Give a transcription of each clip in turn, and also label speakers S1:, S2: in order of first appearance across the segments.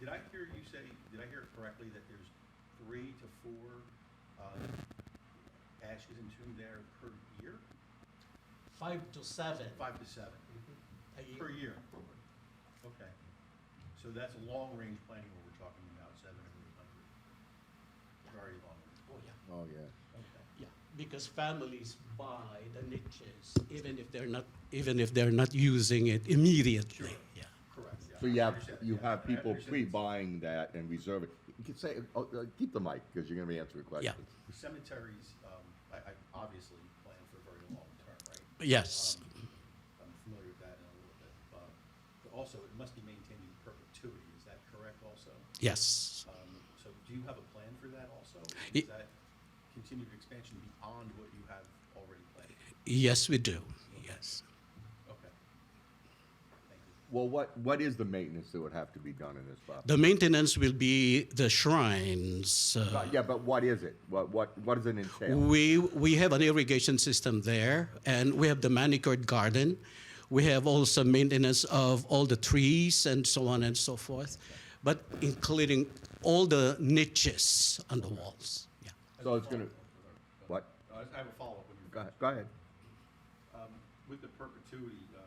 S1: Did I hear you say, did I hear it correctly that there's three to four uh, ashes entombed there per year?
S2: Five to seven
S1: Five to seven
S2: a
S1: per
S2: year.
S1: year? Okay. So that's long-range planning what we're talking about, seven or eight hundred. Very long.
S2: Oh, yeah,
S3: Oh, yeah.
S1: Okay.
S2: yeah, because families buy the niches, even if they're not, even if they're not using it immediately, yeah.
S1: Correct. yeah.
S3: So you
S1: I
S3: have,
S1: understand,
S3: you
S1: yeah, I
S3: have people
S1: understand.
S3: pre-buying that and reserving. You can say, oh, uh, keep the mic, because you're gonna be answering questions.
S1: Cemeteries, um, I, I obviously plan for very long term, right?
S2: Yes,
S1: Um, I'm familiar with that in a little bit. Uh, But also, it must be maintained in perpetuity, is that correct also?
S2: yes.
S1: Um, So do you have a plan for that also?
S2: It-
S1: Is that continued expansion beyond what you have already planned?
S2: Yes, we do, yes.
S1: Okay. Thank you.
S3: Well, what, what is the maintenance that would have to be done in this property?
S2: The maintenance will be the shrines. uh,
S3: Uh, Yeah, but what is it? What, what, what does it entail?
S2: We, we have an irrigation system there, and we have the manicured garden. We have also maintenance of all the trees and so on and so forth, but including all the niches on the walls. Yeah.
S3: So it's gonna, what?
S1: I have a follow-up when you're.
S3: Go ahead, go ahead.
S1: With the perpetuity uh,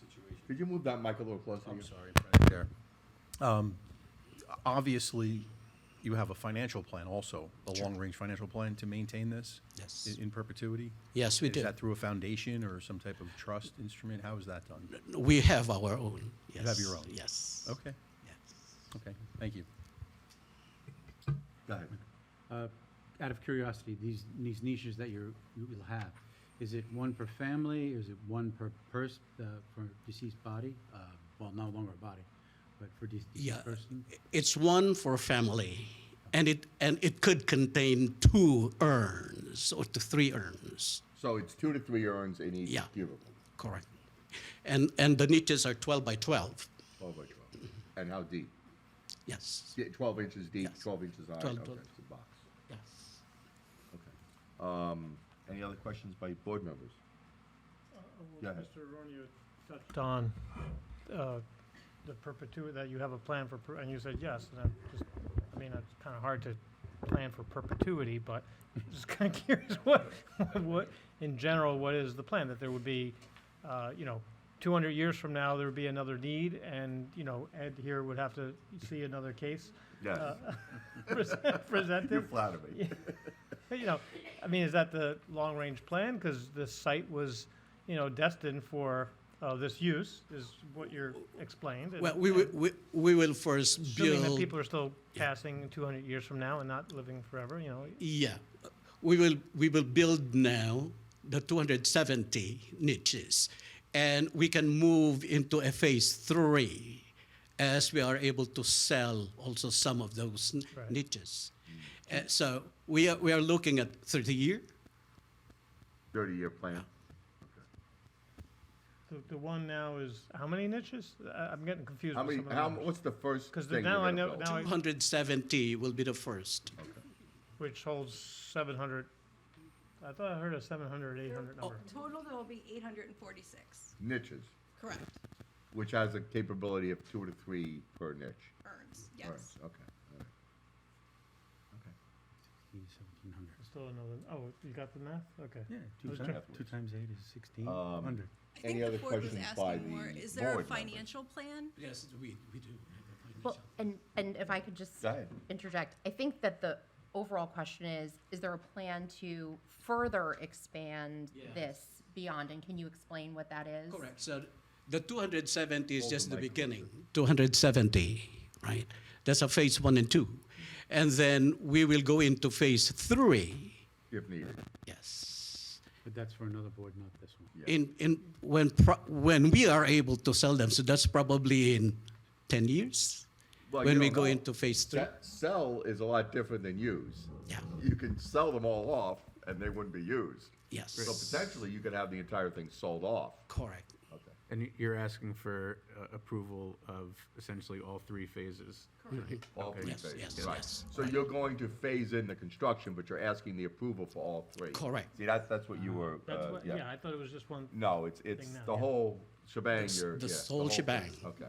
S1: situation.
S3: Could you move that mic a little closer?
S1: I'm
S3: to you?
S1: sorry, Madam Chair. Um, Obviously, you have a financial plan also, a long-range financial plan to maintain this?
S2: Yes.
S1: in- In perpetuity?
S2: Yes, we
S1: Is
S2: do.
S1: that through a foundation or some type of trust instrument? How is that done?
S2: We have our own. Yes.
S1: have your own?
S2: Yes.
S1: Okay,
S2: Yes.
S1: okay, thank you.
S3: Go ahead.
S4: Uh, Out of curiosity, these, these niches that you're, you will have, is it one per family, is it one per person, for deceased body? Uh, Well, no longer a body, but for de-
S2: Yeah,
S4: deceased person?
S2: it's one for family, and it and it could contain two urns or to three urns.
S3: So it's two to three urns in each
S2: Yeah.
S3: cubicle,
S2: Correct. And and the niches are twelve by twelve.
S3: twelve by twelve. And how deep?
S2: Yes.
S3: Yeah, Twelve inches deep,
S2: Yes.
S3: twelve inches high,
S2: Twelve,
S3: okay,
S2: twelve.
S3: it's a box,
S2: Yes.
S3: okay. Um, Any other questions by board members? Go
S5: Well,
S3: ahead.
S5: Mr. Aronio touched on uh, the perpetuity, that you have a plan for, per- and you said yes, and I'm just, I mean, it's kind of hard to plan for perpetuity, but I'm just kind of curious what, what, in general, what is the plan? That there would be, uh, you know, 200 years from now, there would be another need, and, you know, Ed here would have to see another case
S3: Yes,
S5: present- presented?
S3: you flatter me.
S5: you know, I mean, is that the long-range plan? Because the site was, you know, destined for uh, this use, is what you're explained. and-
S2: Well, we will
S5: and
S2: we, we will first
S5: Assuming that
S2: build.
S5: people are still passing 200 years from now and not living forever, you know,
S2: yeah, we will we will build now the 270 niches, and we can move into a phase three, as we are able to sell also some of those n-
S5: Right.
S2: niches. Uh, so we are we are looking at 30 year.
S3: Thirty-year plan.
S5: the, the one now is, how many niches? I- I'm getting confused
S3: How
S5: with
S3: many,
S5: some of the
S3: how,
S5: numbers.
S3: what's the first
S5: 'Cause
S3: thing you're
S5: now I know-
S3: gonna
S5: now
S3: build?
S5: I-
S2: 270 will be the first.
S5: Which holds 700, I thought I heard a 700, 800
S3: Oh.
S5: number.
S6: Oh, Total, there will be eight hundred and forty-six,
S3: Niches,
S6: correct,
S3: which has a capability of two to three per niche.
S6: urns,
S3: All right,
S6: yes.
S3: Okay, all right. Okay.
S4: 1700.
S5: There's Still another, oh, you got the math? Okay.
S7: Yeah, two
S5: Okay.
S7: times, two times eight is sixteen hundred.
S6: I
S3: Any
S6: think the
S3: other
S6: board was
S3: questions by
S6: asking more,
S3: the
S6: is there a
S3: board members?
S6: financial plan?
S2: Yes, we, we do.
S8: Well, and, and if I could just
S3: Go ahead.
S8: interject, I think that the overall question is, is there a plan to further expand
S2: Yes.
S8: this beyond? And can you explain what that is?
S2: Correct. So the 270 is
S3: Hold the
S2: just the
S3: mic
S2: beginning. 270, right? That's a phase one and two. And then we will go into phase three.
S3: If needed,
S2: Yes.
S4: But that's for another board, not this one.
S3: Yeah.
S2: In, in, when, pro- when we are able to sell them, so that's probably in 10 years?
S3: Well,
S2: When
S3: you
S2: we
S3: don't
S2: go
S3: know.
S2: into phase three?
S3: Se- sell is a lot different than use.
S2: Yeah.
S3: You can sell them all off and they wouldn't be used.
S2: Yes.
S3: So potentially you could have the entire thing sold off.
S2: Correct.
S3: Okay.
S7: And you- you're asking for uh, approval of essentially all three phases?
S6: Correct.
S3: All three
S2: Yes,
S3: phases.
S2: yes,
S3: right.
S2: yes.
S3: So you're going to phase in the construction, but you're asking the approval for all three.
S2: Correct.
S3: See, that's, that's what you were,
S5: Uh-huh. That's
S3: uh,
S5: what, yeah,
S3: yeah.
S5: I thought it was just one.
S3: No, it's, it's
S5: Thing now,
S3: the
S5: yeah.
S3: whole shebang,
S2: It's
S3: you're.
S2: the
S3: yeah,
S2: whole
S3: thing.
S2: shebang.
S3: Okay.